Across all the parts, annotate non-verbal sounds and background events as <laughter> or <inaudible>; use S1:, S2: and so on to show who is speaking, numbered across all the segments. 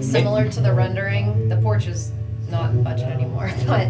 S1: similar to the rendering, the porch is not in budget anymore, <laughs> but,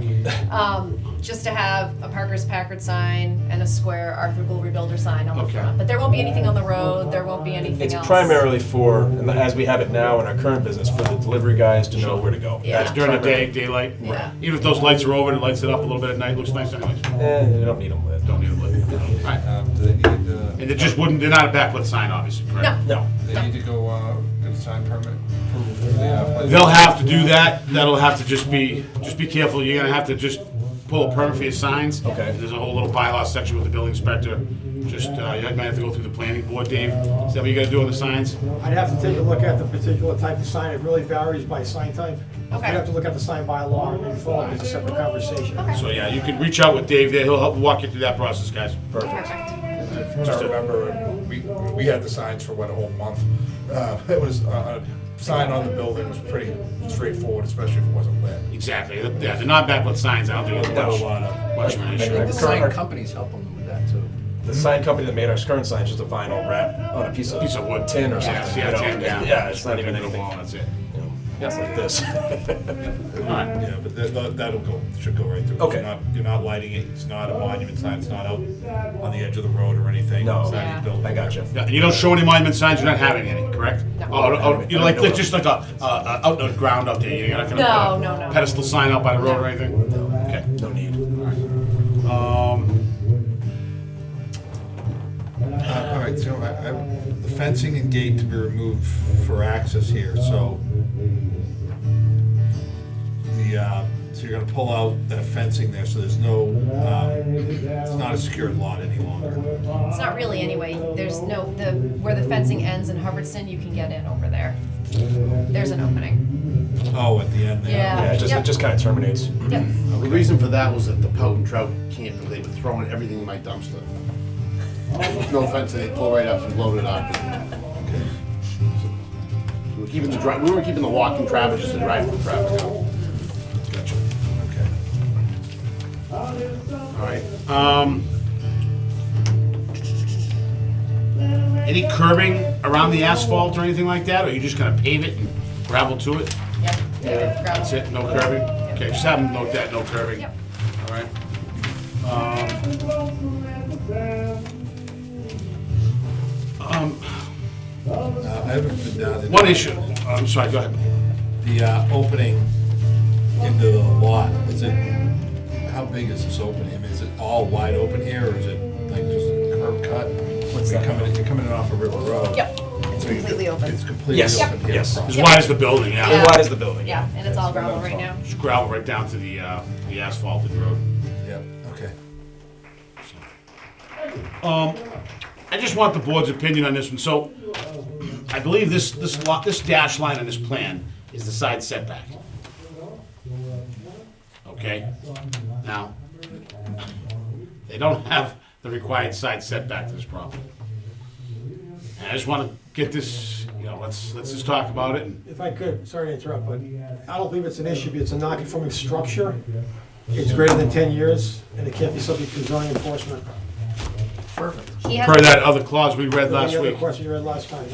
S1: um, just to have a Parker's Packard sign and a square Arthur Gould Rebuilder sign on the
S2: Okay.
S1: front. But there won't be anything on the road, there won't be anything
S3: It's
S1: else.
S3: primarily for, and as we have it now in our current business, for the delivery guys to know where to go.
S1: Yeah.
S3: That's
S2: During the day,
S3: primary.
S2: daylight.
S1: Yeah.
S2: Even if those lights are over and it lights it up a little bit at night, looks nice anyways.
S3: Eh, you don't need them lit.
S2: Don't need a lit. Alright.
S4: Um, do they need, uh,
S2: And it just wouldn't, they're not a backlit sign, obviously, correct?
S1: No.
S3: No.
S4: they need to go, uh, get a sign permit approval for the applicant?
S2: They'll have to do that, that'll have to just be, just be careful, you're gonna have to just pull a permit for your signs.
S3: Okay.
S2: There's a whole little bylaw section with the building inspector, just, uh, you might have to go through the planning board, Dave, is that what you gotta do on the signs?
S5: I'd have to take a look at the particular type of sign, it really varies by sign type.
S1: Okay.
S5: I'd have to look at the sign by law and then follow it as a separate conversation.
S1: Okay.
S2: So, yeah, you can reach out with Dave there, he'll help walk you through that process, guys.
S3: Perfect.
S1: Perfect.
S4: If I remember, we, we had the signs for what, a whole month? Uh, <laughs> It was, uh, a sign on the building was pretty straightforward, especially if it wasn't lit.
S2: Exactly, yeah, they're not backlit signs, I don't think it's much, much of an issue.
S6: The sign companies help them with that too.
S3: The sign company that made our current sign is just a vinyl wrap on a piece of
S2: Piece of wood.
S3: tin or
S2: Yeah,
S3: something.
S2: yeah,
S3: you know?
S2: tin, yeah.
S3: Yeah, it's not
S2: Right
S3: even
S2: into the
S3: anything.
S2: wall, That's it.
S3: you know, It's like this. <laughs>
S2: Alright.
S4: Yeah, but that- that- that'll go, should go right through.
S3: Okay.
S4: You're not, you're not lighting it, it's not a monument sign, it's not out on the edge of the road or anything.
S3: No.
S4: It's not
S1: Yeah.
S4: a building.
S3: I got you.
S2: Yeah, and you don't show any monument signs, you're not having any, correct?
S1: No.
S2: Or, or, you know, like, like- just like a, a, a out on the ground out there, you're not gonna
S1: No,
S2: put a
S1: no, no.
S2: pedestal sign out by the road or anything? Okay.
S3: No need.
S2: Um,
S4: Uh, All right, so I- I- the fencing and gate to be removed for access here, so the, uh, so you're gonna pull out that fencing there, so there's no, um, it's not a secured lot any longer.
S1: It's not really anyway, there's no, the, where the fencing ends in Hubbardston, you can get in over there. There's an opening.
S4: Oh, at the end there.
S1: Yeah.
S3: Yeah, it just, it
S1: Yep.
S3: just kind of terminates.
S1: Yep.
S7: The reason for that was that the Pout and Trout camp, they were throwing everything in my dumpster. No offense, they pulled right up and loaded up. We were keeping the dri, we were keeping the walking traffic, just the driving traffic out.
S4: Gotcha, okay.
S7: All right,
S2: um, any curbing around the asphalt or anything like that, or you just gonna pave it and gravel to it?
S1: Yep. Yeah.
S2: That's it, no curbing? Okay, just have them note that, no curbing.
S1: Yep.
S2: All right. Um, um,
S4: Uh, I haven't been down. in-
S2: One issue, I'm sorry, go ahead.
S4: The uh, opening into the lot, is it, how big is this opening? I mean, is it all wide open here, or is it like just a curb cut? What's
S3: that?
S4: You're coming, in- you're coming in off of River Road.
S1: Yep, it's
S4: So you-
S1: completely open.
S4: It's completely
S3: Yes.
S4: open here.
S3: Yes.
S4: across.
S2: As wide as the building, yeah.
S1: Yeah.
S3: How wide is the building?
S1: Yeah, and it's all gravel right now.
S2: Just gravel right down to the, uh, the asphalted road.
S4: Yep, okay.
S2: Um, I just want the board's opinion on this one, so I believe this, this lot, this dash line on this plan is the side setback. Okay, now, they don't have the required side setback to this property. And I just wanna get this, you know, let's, let's just talk about it and
S5: If I could, sorry to interrupt, but I don't believe it's an issue, but it's a non-conforming structure. It's greater than ten years, and it can't be subject to zoning enforcement.
S1: He
S2: Per
S1: has,
S2: that other clause we read last
S5: Any other
S2: week.
S5: question you had last time?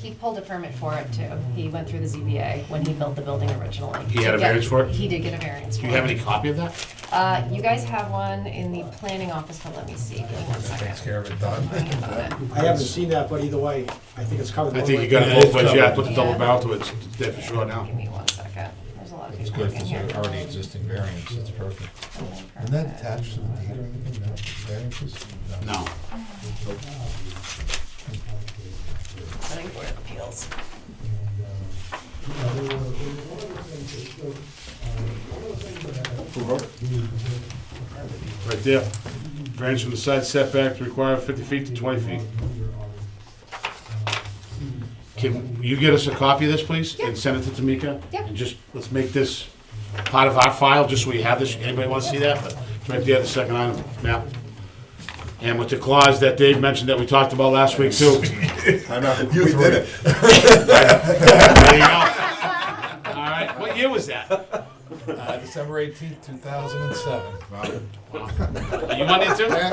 S1: he pulled a permit for it too. He went through the ZBA when he built the building originally.
S2: He had
S1: To
S2: a
S1: get-
S2: variance for it?
S1: He did get a variance for
S2: Do
S1: it.
S2: you have any copy of that?
S1: Uh, you guys have one in the planning office, but let me see, give me one second.
S4: Takes care of it, done.
S1: Let me get that.
S5: I haven't seen that, but either way, I think it's covered.
S2: I
S5: one
S2: think
S5: way.
S2: you got it both ways, yeah, put the double
S1: Yeah.
S2: barrel to it, it's dead for sure
S1: Give
S2: now.
S1: me one second, there's a lot of
S4: It's
S1: people
S4: good
S1: in
S4: for
S1: here.
S4: the already existing variance, it's perfect.
S1: Building
S4: Isn't that
S1: permit.
S4: attached to the deed or anything, no, variances?
S2: No.
S1: Planning Board of Appeals.
S2: Right there. Variance from the side setback to require fifty feet to twenty feet. Can you get us a copy of this, please?
S1: Yeah.
S2: And send it to Tamika?
S1: Yeah.
S2: And just, let's make this part of our file, just so we have this, anybody wanna see that? But It's right there, the second item, map. And with the clause that Dave mentioned that we talked about last week too.
S4: You did it.
S2: There you go. All right, what year was that?
S4: Uh, December eighteenth, two thousand and seven.
S2: Are you on it too? All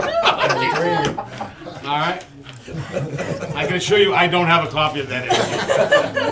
S2: right. I can assure you, I don't have a copy of that.